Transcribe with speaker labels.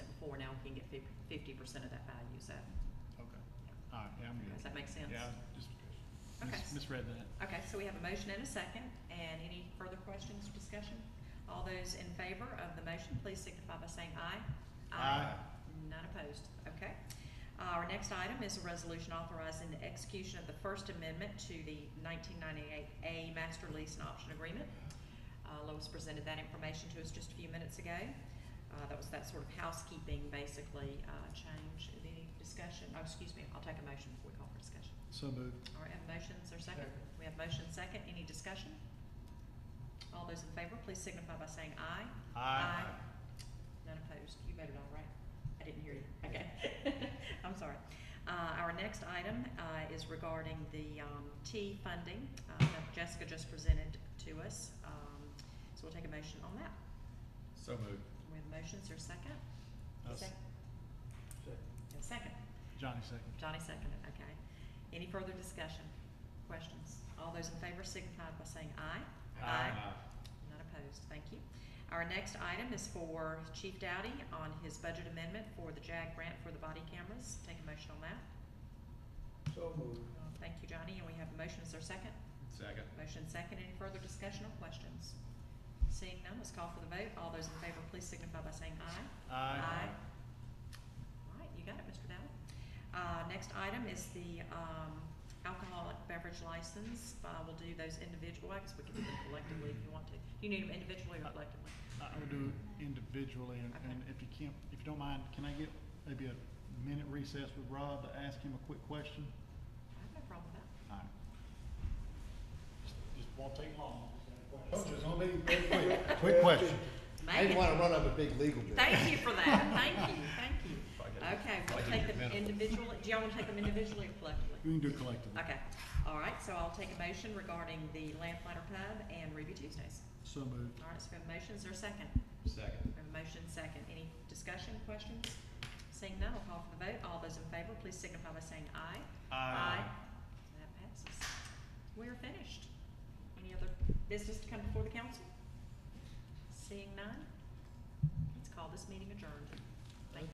Speaker 1: can get fifty percent of that value, so,
Speaker 2: Okay, all right, yeah, I'm good.
Speaker 1: does that make sense?
Speaker 2: Yeah, I just mis-
Speaker 1: Okay.
Speaker 2: misread that.
Speaker 1: Okay, so we have a motion and a second, and any further questions, discussion? All those in favor of the motion, please signify by saying aye.
Speaker 2: Aye.
Speaker 1: None opposed, okay. Our next item is a resolution authorizing the execution of the First Amendment to the nineteen ninety-eight A Master Lease and Option Agreement. Uh, Lois presented that information to us just a few minutes ago. Uh, that was that sort of housekeeping, basically, uh, change. Any discussion? Oh, excuse me, I'll take a motion before we call for discussion.
Speaker 2: So moved.
Speaker 1: All right, have motions or second?
Speaker 2: Second.
Speaker 1: We have motion second, any discussion? All those in favor, please signify by saying aye. None opposed, you voted all right? I didn't hear you, okay. I'm sorry. Uh, our next item, uh, is regarding the, um, T funding, uh, that Jessica just presented to us. Um, so we'll take a motion on that.
Speaker 3: So moved.
Speaker 1: We have motions or second?
Speaker 2: I'll s-
Speaker 1: Sec- yeah, Second.
Speaker 2: Johnny second.
Speaker 1: Johnny seconded, okay. Any further discussion, questions? All those in favor signify by saying aye. None opposed, thank you. Our next item is for Chief Dowdy on his budget amendment for the JAG grant for the body cameras. Take a motion on that.
Speaker 4: So moved.
Speaker 1: Uh, Thank you, Johnny, and we have a motion, is there a second?
Speaker 3: Second.
Speaker 1: Motion second, any further discussion or questions? Seeing none, let's call for the vote. All those in favor, please signify by saying aye. All right, you got it, Mr. Dowd. Uh, next item is the, um, alcoholic beverage license. Uh, we'll do those individual, I guess we can do them collectively if you want to. Do you need them individually or collectively?
Speaker 2: I I would do it individually, and, and if you can't, if you don't mind, can I get maybe a minute recess with Rob to ask him a quick question?
Speaker 1: I have no problem with that.
Speaker 2: All right.
Speaker 4: Just won't take long.
Speaker 2: Oh,
Speaker 5: It's gonna be very quick.
Speaker 2: Quick question.
Speaker 5: I
Speaker 1: Make
Speaker 5: didn't
Speaker 1: it.
Speaker 5: wanna run up a big legal bill.
Speaker 1: Thank you for that. Thank you, thank you.
Speaker 3: If I get it.
Speaker 1: Okay,
Speaker 3: I
Speaker 1: we'll
Speaker 3: can
Speaker 1: take
Speaker 3: get
Speaker 1: them
Speaker 3: minimum.
Speaker 1: individually. Do y'all wanna take them individually or collectively?
Speaker 2: You can do it collectively.
Speaker 1: Okay, all right, so I'll take a motion regarding the Lamplighter Pub and Ruby Tuesdays.
Speaker 2: So moved.
Speaker 1: All right, so we have motions, there a second?
Speaker 3: Second.
Speaker 1: We have a motion second. Any discussion, questions? Seeing none, I'll call for the vote. All those in favor, please signify by saying aye. That passes. We are finished. Any other business to come before the council? Seeing none, let's call this meeting adjourned.